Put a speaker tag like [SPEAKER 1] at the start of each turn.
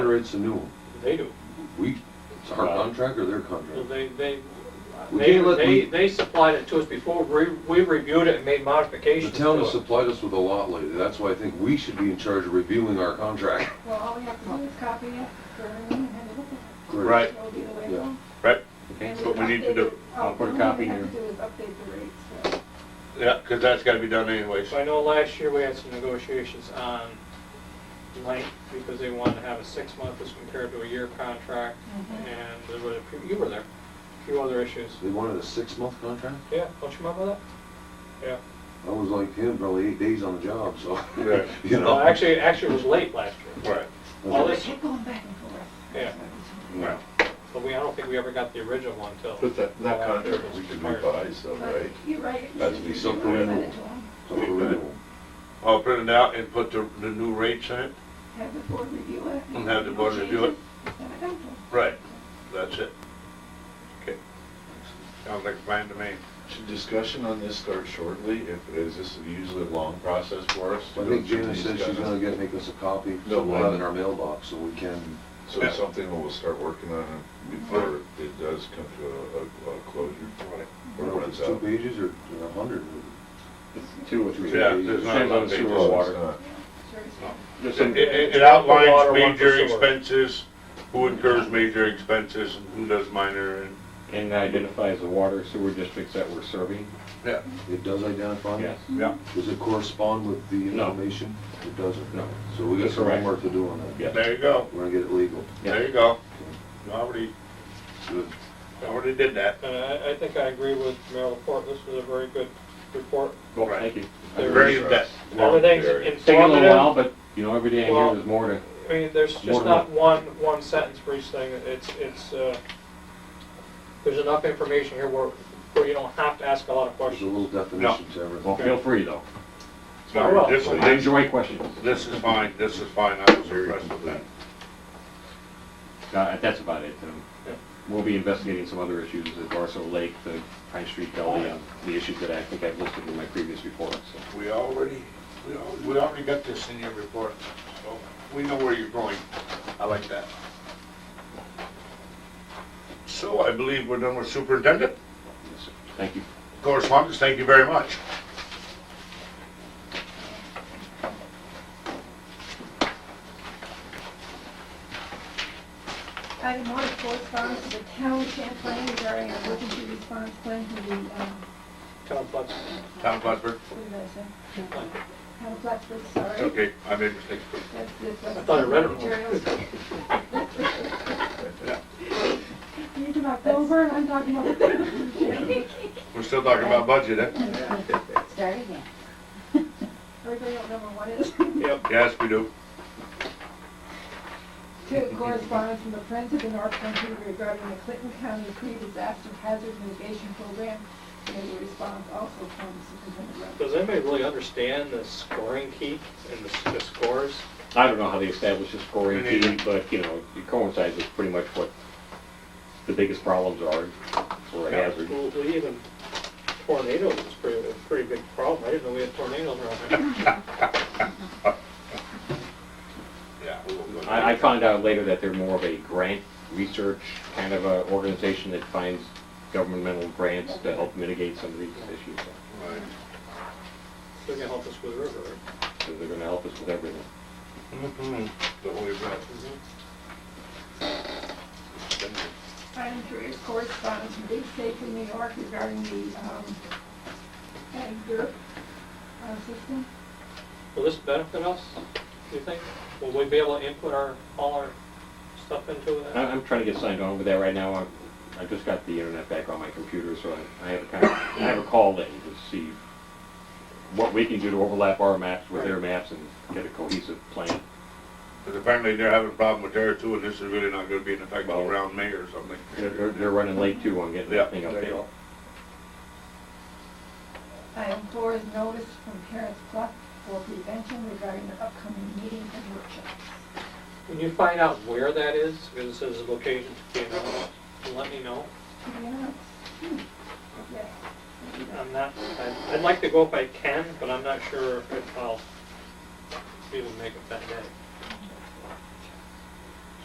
[SPEAKER 1] generates a new one?
[SPEAKER 2] They do.
[SPEAKER 1] We, it's our contract or their
[SPEAKER 2] Well,
[SPEAKER 1] contract?
[SPEAKER 2] They, they,
[SPEAKER 1] We
[SPEAKER 2] they,
[SPEAKER 1] can't let
[SPEAKER 2] they,
[SPEAKER 1] the-
[SPEAKER 2] they supplied it to us before, we, we reviewed it and made
[SPEAKER 1] The
[SPEAKER 2] modifications
[SPEAKER 1] town has
[SPEAKER 2] to it.
[SPEAKER 1] supplied us with a lot lately, that's why I think we should be in charge of reviewing our contract.
[SPEAKER 3] Well, all we have to do is copy it for everyone and have a look at
[SPEAKER 4] Right.
[SPEAKER 3] it. It'll be the way it
[SPEAKER 1] Yeah.
[SPEAKER 3] goes.
[SPEAKER 4] Right,
[SPEAKER 3] And
[SPEAKER 4] that's what we need to
[SPEAKER 3] update
[SPEAKER 4] do.
[SPEAKER 3] it. All
[SPEAKER 4] I'll put a
[SPEAKER 3] we
[SPEAKER 4] copy
[SPEAKER 3] have
[SPEAKER 4] here.
[SPEAKER 3] to do is update the rates, so.
[SPEAKER 4] Yeah, because that's got to be done anyways.
[SPEAKER 2] So I know last year we had some negotiations on length, because they wanted to have a six-month as compared to a year contract,
[SPEAKER 3] Mhm.
[SPEAKER 2] and there were, a few- you were there, a few other issues.
[SPEAKER 1] They wanted a six-month contract?
[SPEAKER 2] Yeah, don't you remember that? Yeah.
[SPEAKER 1] I was like him, probably eight days on the job, so,
[SPEAKER 4] Right.
[SPEAKER 1] you
[SPEAKER 2] No,
[SPEAKER 1] know.
[SPEAKER 2] Uh, actually, actually it was late last year,
[SPEAKER 4] Right,
[SPEAKER 2] Well,
[SPEAKER 3] They
[SPEAKER 2] this-
[SPEAKER 3] kept going back and forth.
[SPEAKER 2] Yeah.
[SPEAKER 4] right.
[SPEAKER 2] but we, I don't think we ever got the original one till. uh,
[SPEAKER 5] But that, that contract, we could
[SPEAKER 2] expired.
[SPEAKER 5] revise though,
[SPEAKER 3] But
[SPEAKER 5] right?
[SPEAKER 3] You're right.
[SPEAKER 5] That's
[SPEAKER 3] You
[SPEAKER 5] be
[SPEAKER 3] should
[SPEAKER 1] so
[SPEAKER 3] do it. Send it
[SPEAKER 1] cool.
[SPEAKER 3] to them.
[SPEAKER 1] So for renewal.
[SPEAKER 4] I'll print it out and put the, the new rates in it.
[SPEAKER 3] Have the board review it.
[SPEAKER 4] And have the board review it.
[SPEAKER 3] Send it back to them.
[SPEAKER 4] Right. That's it. Okay. Sounds like a plan to me.
[SPEAKER 5] Should discussion on this start shortly? If, is this usually a long process for us? to
[SPEAKER 1] I
[SPEAKER 5] go
[SPEAKER 1] think
[SPEAKER 5] through
[SPEAKER 1] Janice
[SPEAKER 5] these
[SPEAKER 1] said she's
[SPEAKER 5] guys?
[SPEAKER 1] gonna get, make us a copy, so
[SPEAKER 5] No,
[SPEAKER 1] we'll have it
[SPEAKER 5] I-
[SPEAKER 1] in our mailbox, so we can,
[SPEAKER 5] So it's something that we'll start working on before it does come to a, a- a closure.
[SPEAKER 1] I
[SPEAKER 5] Or
[SPEAKER 1] don't know if
[SPEAKER 5] runs
[SPEAKER 1] it's two
[SPEAKER 5] out.
[SPEAKER 1] pages or a hundred.
[SPEAKER 6] Two or
[SPEAKER 1] three.
[SPEAKER 4] Yeah, there's not a lot of
[SPEAKER 6] Same
[SPEAKER 4] pages.
[SPEAKER 6] on sewer.
[SPEAKER 5] Well, it's not.
[SPEAKER 3] Sure.
[SPEAKER 6] Just
[SPEAKER 4] It,
[SPEAKER 6] in-
[SPEAKER 4] it it outlines
[SPEAKER 2] Water, one for
[SPEAKER 4] major
[SPEAKER 2] sewer.
[SPEAKER 4] expenses, who incurs major expenses and who does minor and,
[SPEAKER 6] And identifies the water sewer districts that we're serving,
[SPEAKER 4] yeah,
[SPEAKER 1] It does identify?
[SPEAKER 6] yes.
[SPEAKER 4] yeah.
[SPEAKER 1] Does it correspond with the
[SPEAKER 6] No.
[SPEAKER 1] information? It doesn't?
[SPEAKER 6] No.
[SPEAKER 1] So we got
[SPEAKER 6] That's
[SPEAKER 1] some
[SPEAKER 6] correct.
[SPEAKER 1] homework to do on that.
[SPEAKER 6] Yeah.
[SPEAKER 4] There you go.
[SPEAKER 1] We're gonna get it legal.
[SPEAKER 4] There you go. Already,
[SPEAKER 1] Good.
[SPEAKER 4] already did that.
[SPEAKER 2] And I, I think I agree with Mayor Laporte, this was a very good report.
[SPEAKER 6] Well,
[SPEAKER 4] Right.
[SPEAKER 6] thank you.
[SPEAKER 4] Very in depth.
[SPEAKER 2] Everything's
[SPEAKER 6] It's taking a little while,
[SPEAKER 2] informative.
[SPEAKER 6] but, you know, every day I
[SPEAKER 2] Well-
[SPEAKER 6] hear there's more to,
[SPEAKER 2] I mean, there's
[SPEAKER 6] More
[SPEAKER 2] just
[SPEAKER 6] than
[SPEAKER 2] not one, one sentence for each thing, it's, it's, uh, there's enough information here where, where you don't have to ask a lot
[SPEAKER 1] There's
[SPEAKER 2] of
[SPEAKER 1] a
[SPEAKER 2] questions.
[SPEAKER 1] little definition to everything.
[SPEAKER 6] well, feel free though.
[SPEAKER 2] Very well.
[SPEAKER 4] This
[SPEAKER 6] I
[SPEAKER 4] is,
[SPEAKER 6] enjoy questions.
[SPEAKER 4] this is fine, this is fine, I was impressed with that.
[SPEAKER 6] Uh, That's about it. Um,
[SPEAKER 2] Yeah.
[SPEAKER 6] We'll be investigating some other issues, the Barso Lake, the Pine Street Gully, um, the issues that I think I've listed in my previous report, so.
[SPEAKER 4] We already, we al- we already got this in your report, so we know where you're going. I like that. So I believe we're done with superintendent.
[SPEAKER 6] yes, sir. Thank you.
[SPEAKER 4] Correspondence, thank you very much.
[SPEAKER 3] Item one, correspondence to the town of Champlain regarding an emergency response plan to the, um,
[SPEAKER 6] Mm-hmm.
[SPEAKER 2] Town flux.
[SPEAKER 4] Tom Glassberg.
[SPEAKER 3] what did I say? Town of Plattsburgh, sorry.
[SPEAKER 4] Okay, I made mistakes.
[SPEAKER 3] That's- that's-
[SPEAKER 2] I thought I read it wrong.
[SPEAKER 3] materials. You're talking about Dover, and I'm talking about.
[SPEAKER 4] We're still talking about budget, eh?
[SPEAKER 7] Start again.
[SPEAKER 3] Everybody don't know what it is.
[SPEAKER 2] Yep.
[SPEAKER 4] Yes, we do.
[SPEAKER 3] Two, correspondence from the Friends of the North Country regarding the Clinton County pre-disaster hazard mitigation program. And the response also from Superintendent Rupp.
[SPEAKER 2] Does anybody really understand the scoring key and the, s- the scores?
[SPEAKER 6] I don't know how they establish the scoring
[SPEAKER 4] Me neither.
[SPEAKER 6] key, but, you know, it coincides with pretty much what the biggest problems are, or a hazard.
[SPEAKER 2] Well, we Even tornadoes is pretty, a pretty big problem, I didn't know we had tornadoes around here.
[SPEAKER 4] Yeah. we will go.
[SPEAKER 6] I, I found out later that they're more of a grant research kind of a organization that finds governmental grants to help mitigate some of these issues.
[SPEAKER 4] Right.
[SPEAKER 2] They're gonna help us with the river, right?
[SPEAKER 6] So they're gonna help us with everything.
[SPEAKER 4] Mhm. The Holy Grail.
[SPEAKER 3] Item three is correspondence from Big State from New York regarding the, um, ag dirt, uh, system.
[SPEAKER 2] Will this benefit us, do you think? Will we be able to input our, all our stuff into
[SPEAKER 6] I,
[SPEAKER 2] that?
[SPEAKER 6] I'm trying to get signed on with that right now. I, I just got the internet back on my computer, so I, I have a kind of, I have a call in to see what we can do to overlap our maps with their maps and get a cohesive plan.
[SPEAKER 4] Because apparently they're having a problem with there too, and this is really not gonna be an effect all around May or something.
[SPEAKER 6] They're, they're- they're running late too on getting
[SPEAKER 4] Yeah,
[SPEAKER 6] that thing up
[SPEAKER 4] there you
[SPEAKER 6] there.
[SPEAKER 4] go.
[SPEAKER 3] Item four is notice from Parents Club for prevention regarding their upcoming meetings and workshops.
[SPEAKER 2] When you find out where that is, because it says the location to be announced, let me know.
[SPEAKER 3] To be announced. Hmm. Yes.
[SPEAKER 2] I'm not, I- I'd like to go if I can, but I'm not sure if I'll be able to make it that day.